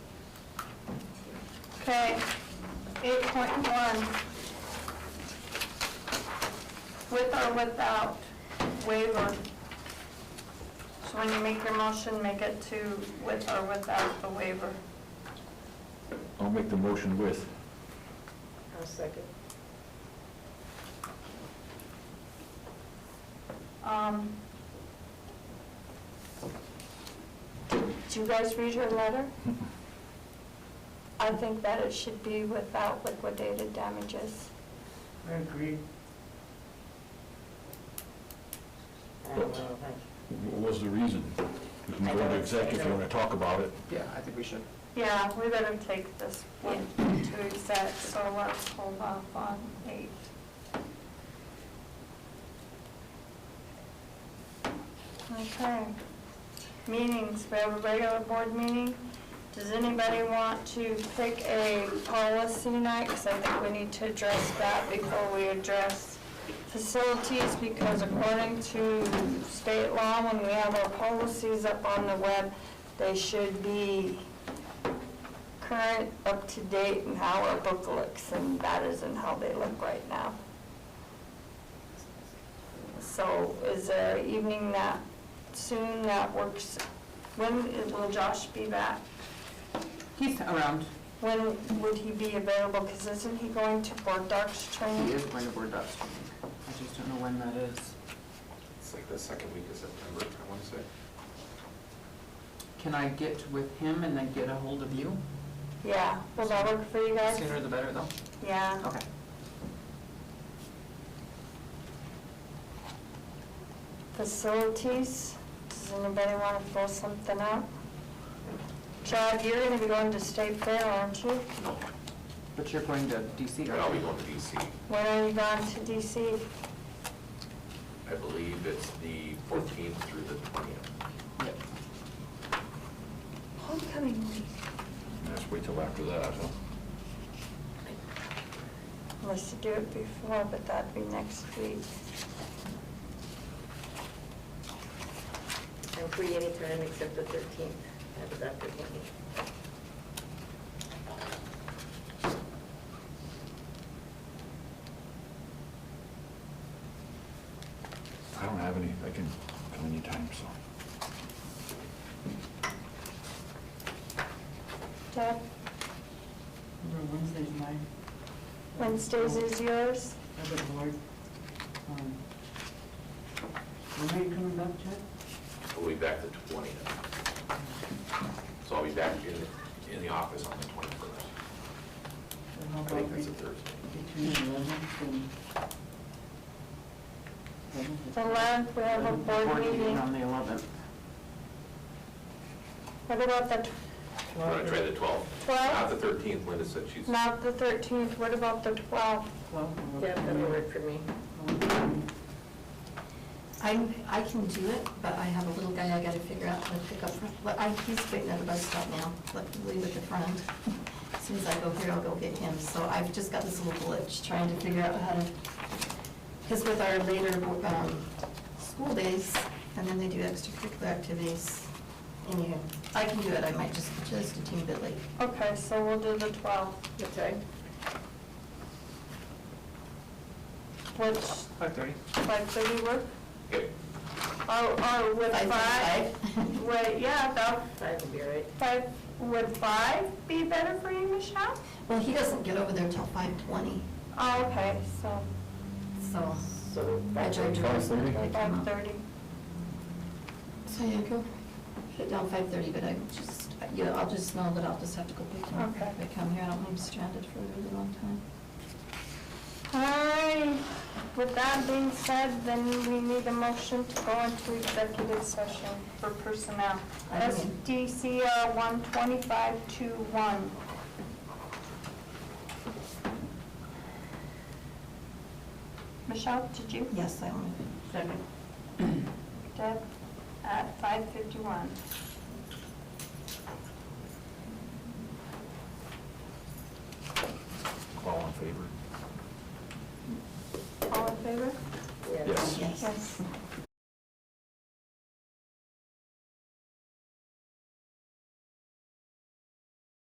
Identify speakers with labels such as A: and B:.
A: Okay, eight point one. With or without waiver. So when you make your motion, make it to with or without the waiver.
B: I'll make the motion with.
C: I'll second.
A: Um, Did you guys read her letter? I think that it should be without liquidated damages.
C: I agree. I don't know,
B: What was the reason? We can go into exec if you want to talk about it.
D: Yeah, I think we should.
A: Yeah, we better take this one to exec, so let's hold off on eight. Okay. Meetings, we have a regular board meeting. Does anybody want to pick a policy night? Because I think we need to address that before we address facilities, because according to state law, when we have our policies up on the web, they should be current, up to date, and how our book looks, and that isn't how they look right now. So is there an evening that soon that works? When is- will Josh be back?
E: He's around.
A: When would he be available? Because isn't he going to Board Docs
E: He
A: training?
E: is going to board docs training. I just don't know when that is.
D: It's like the second week of September, I want to say.
E: Can I get with him and then get a hold of you?
A: Yeah, will that work for you guys?
E: Sooner the better, though.
A: Yeah,
E: Okay.
A: facilities, does anybody want to throw something out? Chad, you're going to be going to State Fair, aren't you?
D: No,
E: But you're going to DC,
D: but I'll be
E: right?
D: going to DC.
A: When are you going to DC?
D: I believe it's the 14th through the 20th.
E: Yep.
A: Homecoming week.
B: Let's wait till after that, huh?
A: Unless you do it before, but that'd be next week.
C: I'm free anytime except the 13th, I have a doctor's appointment.
B: I don't have any, I can come anytime, so.
A: Deb,
E: Wednesday's mine.
A: Wednesdays is yours?
E: I've been bored. When are you coming back, Chad?
D: We'll be back the 20th. So I'll be back in, in the office on the 21st. I think that's a Thursday.
E: Between eleventh and.
A: The 11th, we have a board meeting.
E: On the eleventh.
A: What about the, tw-
D: I'm going to try the 12th. Not
A: 12th?
D: the 13th, Linda said she's,
A: not the 13th, what about the 12th?
C: Yeah, that'll work for me.
F: I, I can do it, but I have a little guy I gotta figure out how to pick up, from. but I, he's waiting at the bus stop now, but leave with a friend. As soon as I go here, I'll go get him, so I've just got this little glitch, trying to figure out how to, because with our later, um, school days, and then they do extracurricular activities, anywho, I can do it, I might just, just a teeny bit late.
A: Okay, so we'll do the 12th,
C: What time?
A: which,
E: Five thirty.
A: like, did you work?
D: okay,
A: Oh, oh, with five?
F: Five.
A: Wait, yeah, about
C: Five will be all right.
A: five, would five be better for you, Michelle?
F: Well, he doesn't get over there till five twenty,
A: Oh, okay, so,
F: so.
C: So
F: I
C: five
F: drove to work,
B: Five thirty?
F: I come out.
A: 5:30.
F: So yeah, go, put down five thirty, but I just, you know, I'll just know that I'll just have to go pick him up.
A: Okay.
F: If I come here, I don't want him stranded for a really long time.
A: All right, with that being said, then we need a motion to go into executive session for personnel.
F: I do.
A: SDCR 12521. Michelle, did you?
F: Yes, I want to.
C: Second.
A: Deb, at 5:51.
B: All in favor?
A: All in favor?
C: Yeah.
B: Yes.
F: Yes.